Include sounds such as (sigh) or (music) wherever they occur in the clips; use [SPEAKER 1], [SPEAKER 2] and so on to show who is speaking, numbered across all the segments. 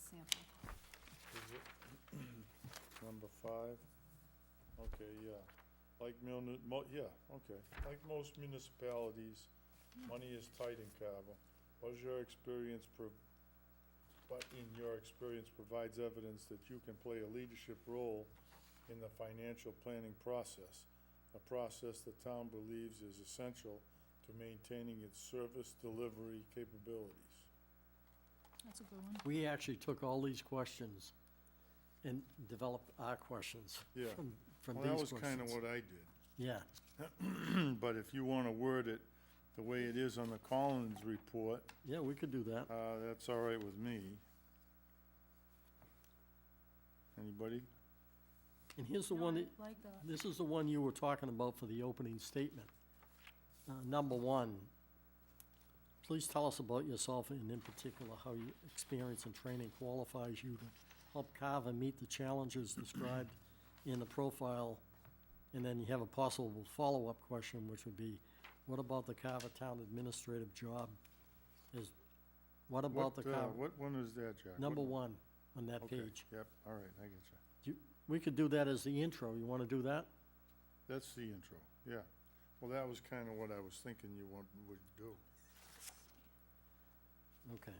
[SPEAKER 1] sample.
[SPEAKER 2] Is it (clears throat) Number five, okay, yeah, like muni, mo, yeah, okay, like most municipalities, money is tight in Carver. Was your experience pro, but in your experience provides evidence that you can play a leadership role in the financial planning process, a process the town believes is essential to maintaining its service delivery capabilities.
[SPEAKER 1] That's a good one.
[SPEAKER 3] We actually took all these questions and developed our questions
[SPEAKER 2] Yeah,
[SPEAKER 3] from, from
[SPEAKER 2] well, that
[SPEAKER 3] these
[SPEAKER 2] was kinda
[SPEAKER 3] questions.
[SPEAKER 2] what I did.
[SPEAKER 3] Yeah,
[SPEAKER 2] (clears throat) But if you want to word it the way it is on the Collins report,
[SPEAKER 3] yeah, we could do that.
[SPEAKER 2] uh, that's all right with me. Anybody?
[SPEAKER 3] And here's the
[SPEAKER 1] No,
[SPEAKER 3] one
[SPEAKER 1] I
[SPEAKER 3] that,
[SPEAKER 1] Like that.
[SPEAKER 3] this is the one you were talking about for the opening statement. Uh, number one, please tell us about yourself and in particular how your experience and training qualifies you to help Carver meet the challenges described in the profile. And then you have a possible follow-up question, which would be, what about the Carver Town Administrative job? Is, what about the
[SPEAKER 2] What, uh,
[SPEAKER 3] Carver,
[SPEAKER 2] What one is that, Jack?
[SPEAKER 3] number
[SPEAKER 2] What-
[SPEAKER 3] one on that
[SPEAKER 2] okay,
[SPEAKER 3] page?
[SPEAKER 2] Yep, all right, I get you.
[SPEAKER 3] We could do that as the intro. You wanna do that?
[SPEAKER 2] That's the intro, yeah. Well, that was kind of what I was thinking you want, would do.
[SPEAKER 3] Okay.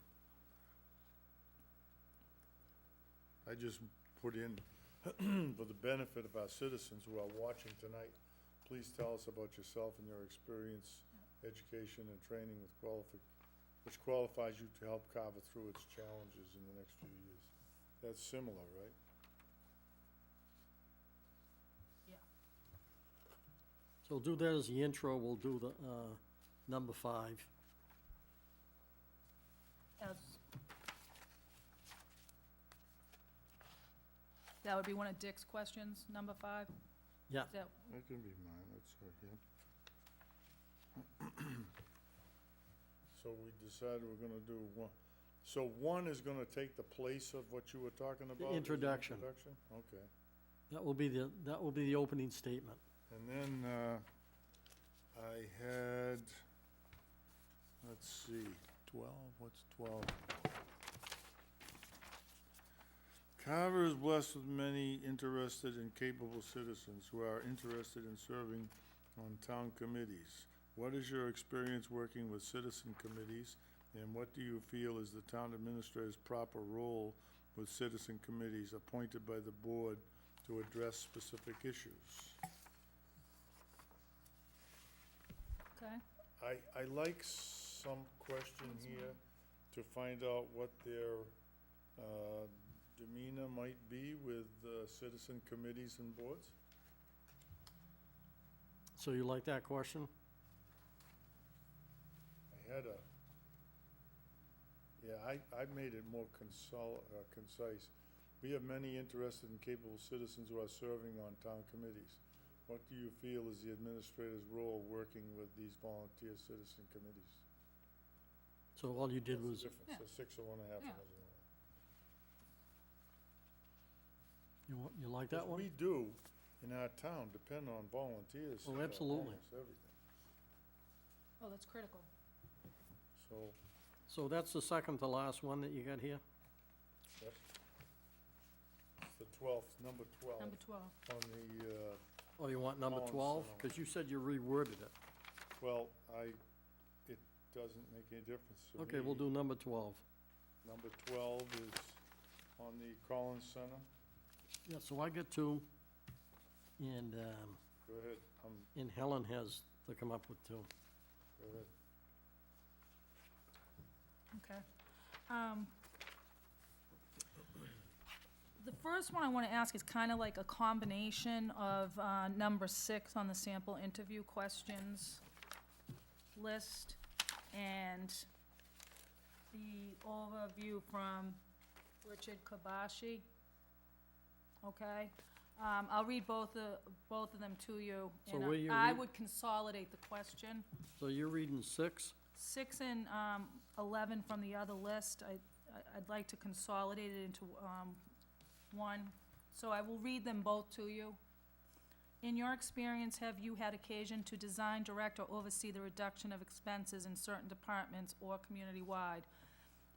[SPEAKER 2] I just put in, (clears throat) for the benefit of our citizens who are watching tonight, please tell us about yourself and your experience, education and training with qualifi, which qualifies you to help Carver through its challenges in the next few years. That's similar, right?
[SPEAKER 3] So we'll do that as the intro, we'll do the, uh, number five.
[SPEAKER 1] As- That would be one of Dick's questions, number five?
[SPEAKER 3] Yeah.
[SPEAKER 1] Is that-
[SPEAKER 2] That can be mine, that's all right, yeah. (clears throat) So we decided we're gonna do one, so one is gonna take the place of what you were talking about? is
[SPEAKER 3] introduction.
[SPEAKER 2] Introduction, okay.
[SPEAKER 3] That will be the, that will be the opening statement.
[SPEAKER 2] And then, uh, I had, let's see, twelve, what's twelve? Carver is blessed with many interested and capable citizens who are interested in serving on town committees. What is your experience working with citizen committees, and what do you feel is the town administrator's proper role with citizen committees appointed by the board to address specific issues?
[SPEAKER 1] Okay,
[SPEAKER 2] I, I like some question
[SPEAKER 1] That's
[SPEAKER 2] here to find out what their, uh, demeanor might be with, uh, citizen committees and boards.
[SPEAKER 3] So you like that question?
[SPEAKER 2] I had a, yeah, I, I made it more consol, uh, concise. We have many interested and capable citizens who are serving on town committees. What do you feel is the administrator's role working with these volunteer citizen committees?
[SPEAKER 3] So all you did
[SPEAKER 2] What's
[SPEAKER 3] was,
[SPEAKER 2] the difference? A six or one and a half,
[SPEAKER 1] Yeah.
[SPEAKER 2] one is one.
[SPEAKER 3] you, wa- you like
[SPEAKER 2] Because
[SPEAKER 3] that one?
[SPEAKER 2] We do, in our town, depend on volunteers.
[SPEAKER 3] Oh,
[SPEAKER 2] for
[SPEAKER 3] absolutely.
[SPEAKER 2] almost everything.
[SPEAKER 1] oh, that's critical.
[SPEAKER 2] So,
[SPEAKER 3] So that's the second to last one that you got here?
[SPEAKER 2] that's, it's the twelfth, number twelve,
[SPEAKER 1] Number twelve.
[SPEAKER 2] on the, uh,
[SPEAKER 3] Oh, you want number
[SPEAKER 2] Column
[SPEAKER 3] twelve?
[SPEAKER 2] seven.
[SPEAKER 3] Cause you said you reworded it.
[SPEAKER 2] well, I, it doesn't make any difference to
[SPEAKER 3] Okay, we'll
[SPEAKER 2] me.
[SPEAKER 3] do number twelve.
[SPEAKER 2] Number twelve is on the Collins Center,
[SPEAKER 3] Yeah, so I get two, and, um,
[SPEAKER 2] go ahead, um,
[SPEAKER 3] and Helen has to come up with two.
[SPEAKER 2] go ahead.
[SPEAKER 1] Okay. Um, The first one I want to ask is kind of like a combination of uh, number six on the sample interview questions list and the overview from Richard Kabashi. Okay? Um, I'll read both of, both of them to you.
[SPEAKER 3] So
[SPEAKER 1] and
[SPEAKER 3] will you
[SPEAKER 1] I
[SPEAKER 3] read-
[SPEAKER 1] would consolidate the question
[SPEAKER 3] So you're reading six?
[SPEAKER 1] six and um, 11 from the other list, I- I- I'd like to consolidate it into um, one. So I will read them both to you. In your experience, have you had occasion to design, direct, or oversee the reduction of expenses in certain departments or community-wide?